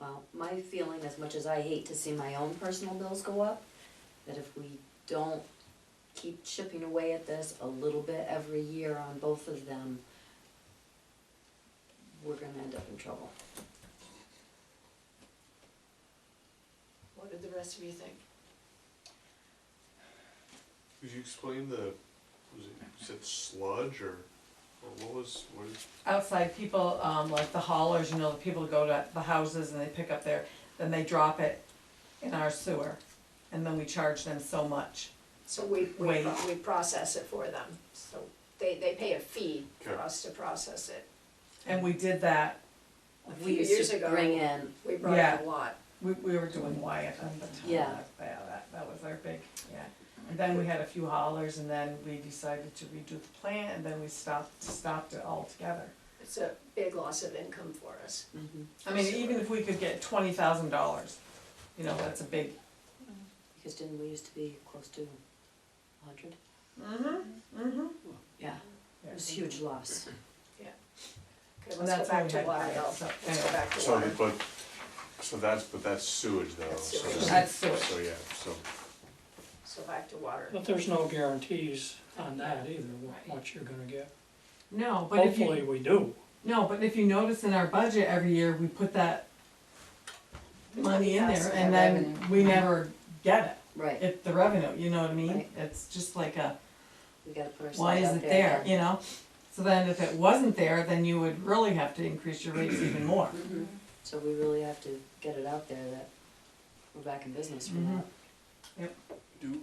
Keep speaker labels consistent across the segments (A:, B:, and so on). A: Well, my feeling, as much as I hate to see my own personal bills go up, that if we don't keep chipping away at this a little bit every year on both of them, we're gonna end up in trouble.
B: What did the rest of you think?
C: Could you explain the, was it, you said sludge or, or what was, what is,
D: outside people, um, like the haulers, you know, the people go to the houses and they pick up their, then they drop it in our sewer. And then we charge them so much.
B: So we, we,
D: Wait.
B: pro- we process it for them, so they, they pay a fee for
C: Okay.
B: us to process it.
D: And we did that,
B: A few
A: We used
B: years
A: to
B: ago,
A: bring in,
B: we brought in
D: Yeah.
B: a lot.
D: we, we were doing Wyatt at the time.
A: Yeah.
D: That- Yeah, that, that was our big, yeah. And then we had a few haulers and then we decided to redo the plant and then we stopped, stopped it altogether.
B: It's a big loss of income for us.
A: mhm,
D: I mean, even if we could get twenty thousand dollars, you know, that's a big,
A: because didn't we used to be close to a hundred?
D: mm-hmm, mm-hmm.
A: Yeah, it was a huge loss.
B: Okay,
D: And
B: let's
D: that's
B: go
D: why
B: back
D: we
B: to
D: had
B: water
D: Wyatt,
B: though.
D: so,
B: Let's go
D: anyway.
B: back to
C: so,
B: water.
C: but, so that's, but that's sewage though,
B: That's
C: so.
B: sewage.
D: That's sewage.
C: So, yeah, so,
B: So back to water.
E: But there's no guarantees on that either, what, what you're gonna get.
D: No, but if you.
E: Hopefully, we do.
D: No, but if you notice in our budget every year, we put that money in
B: Yes,
D: there and
A: that
D: then we never get it,
A: Right,
D: if the revenue, you know what I mean?
A: Right.
D: It's just like a,
A: we gotta put ourselves
D: why is
A: out
D: it there,
A: again.
D: you know? So then if it wasn't there, then you would really have to increase your rates even more.
A: Mhm. So we really have to get it out there that we're back in business for
D: Mhm.
A: that.
C: do,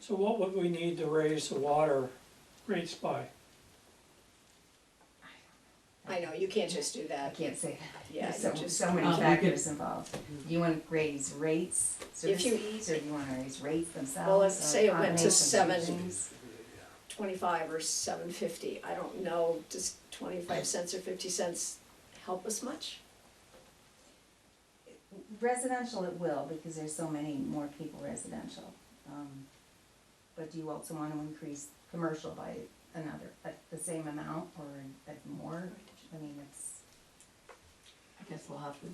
E: So what would we need to raise the water rates by?
B: I know, you can't just do
F: I
B: that.
F: can't say
B: Yeah,
F: that,
B: you
F: so,
B: just-
F: so many
D: Um, we
F: factors involved. Do you wanna raise rates, service
B: If you-
F: fees, or do you wanna raise rates themselves?
B: Well, let's
F: or
B: say it went to
F: combination of
B: seven.
F: things?
B: Twenty-five or seven fifty, I don't know, does twenty-five cents or fifty cents help us much?
F: Residential it will, because there's so many more people residential. Um, But do you also wanna increase commercial by another, at the same amount or at more? I mean, it's,
D: I guess we'll have to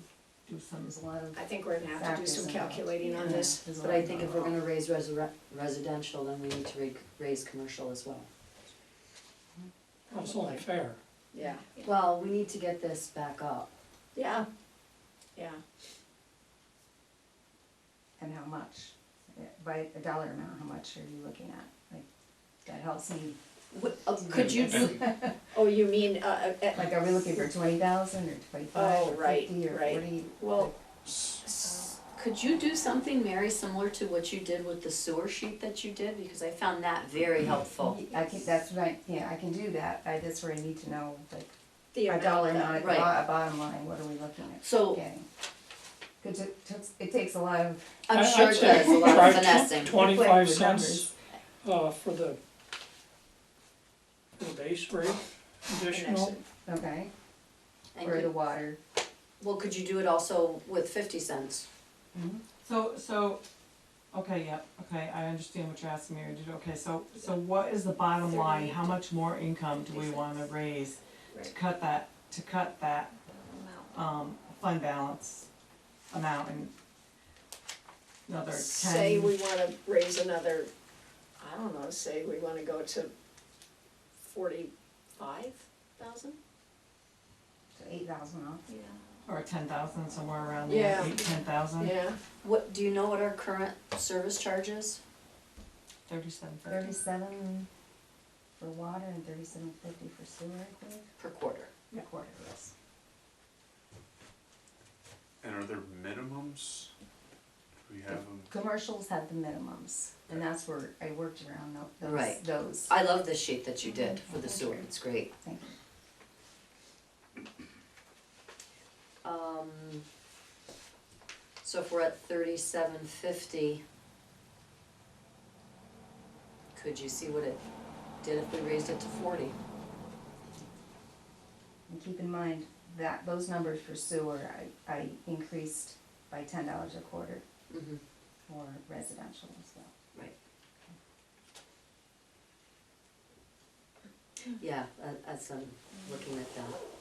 D: do some,
F: there's a lot of.
B: I think we're gonna have to do
F: Factors
B: some
F: involved.
B: calculating on
F: yeah,
B: this.
F: there's a
A: But
F: lot
A: I
F: of-
A: think if we're gonna raise resur- residential, then we need to re- raise commercial as well.
E: That's only fair.
B: Yeah.
A: Well, we need to get this back up.
B: Yeah, yeah.
F: And how much, Uh, by a dollar amount, how much are you looking at? Like, that helps me
A: uh, Could you do,
B: Oh, you mean, uh, uh, uh,
F: Like, are we looking for twenty thousand or twenty-five
B: Oh,
F: or
B: right,
F: fifty or
B: right.
F: forty?
B: well,
A: could you do something, Mary, similar to what you did with the sewer sheet that you did? Because I found that very helpful.
F: I can, that's what I, yeah, I can do that, I, that's where I need to know, like,
B: the
F: a
B: amount.
F: dollar amount
B: that-
F: at the
A: Right.
F: bo- bottom line, what are we looking at
A: So
F: getting? Cause it takes, it takes a lot of,
A: I'm
E: I-
A: sure
E: I'd
A: it
E: say
A: does a lot
E: try
A: of
E: tw-
A: finessing.
E: Twenty-five
F: Quick
E: cents, uh, for the, for the base rate additional.
B: Connection.
F: okay,
A: And
F: or the
A: could-
F: water,
A: Well, could you do it also with fifty cents?
D: so, so, okay, yep, okay, I understand what you're asking Mary to do. Okay, so, so what is the bottom line? How much more income do we wanna raise to
B: Right.
D: cut that, to cut that um, fund balance amount and another
B: Say we
D: ten,
B: wanna raise another, I don't know, say we wanna go to forty-five thousand?
F: so eight thousand off.
D: or ten thousand, somewhere around there,
B: Yeah.
D: eight, ten thousand,
B: Yeah,
A: What, do you know what our current service charge is?
D: thirty-seven fifty.
F: Thirty-seven for water and thirty-seven fifty for sewer, I think,
A: Per quarter.
F: a quarter, yes.
C: and are there minimums? Do we have them?
F: Commercials have the minimums, and that's where I worked around tho- those,
A: Right.
F: those,
A: I love this sheet that you did for the sewer, it's great.
F: thank you.
A: Um, so if we're at thirty-seven fifty, could you see what it did if we raised it to forty?
F: And keep in mind that those numbers for sewer, I, I increased by ten dollars a quarter
A: Mm-hmm.
F: for residential as well.
A: Yeah, a- as I'm looking at that.